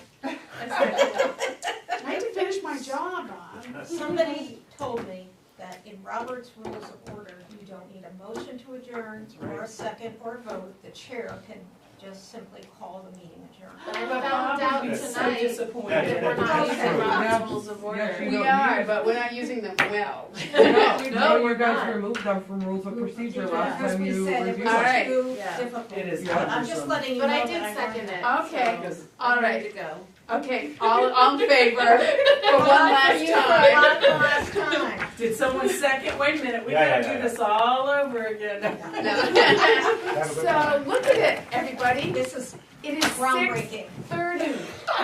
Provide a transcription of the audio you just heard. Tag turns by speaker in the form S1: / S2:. S1: I have to finish my job, Bob.
S2: Somebody told me that in Robert's Rules of Order, you don't need a motion to adjourn or a second or a vote. The chair can just simply call the meeting adjourned.
S3: I
S1: But Bob
S3: found out
S1: would be so
S3: tonight that we're
S1: disappointed.
S3: not
S2: That's
S3: using
S2: true.
S3: Robert's rules of order.
S4: Yeah,
S5: We
S4: don't
S5: are,
S4: use-
S5: but we're not using them well.
S4: No,
S3: No,
S4: you
S3: we're
S4: guys
S3: not.
S4: removed them from rules of procedure last
S2: Because
S4: time
S2: we
S4: you
S2: said it
S4: reviewed.
S2: was
S5: All
S4: them.
S5: right.
S2: too
S3: Yeah.
S2: difficult.
S6: It is
S2: I'm just
S6: cumbersome.
S2: letting you know
S3: But I
S2: that
S3: did
S2: I
S3: second
S2: learned
S3: it.
S2: that.
S5: Okay,
S2: So-
S5: all
S3: I'm ready
S5: right,
S3: to go.
S5: okay, all, all in favor, for one last
S2: You were
S5: time.
S2: on the last time.
S6: Did someone second? Wait a minute, we
S7: Yeah,
S6: gotta
S7: yeah,
S6: do
S7: yeah.
S6: this all over again.
S5: No.
S7: Have a good one.
S5: So, look at it, everybody,
S2: This is
S5: it is six
S2: groundbreaking.
S5: thirty.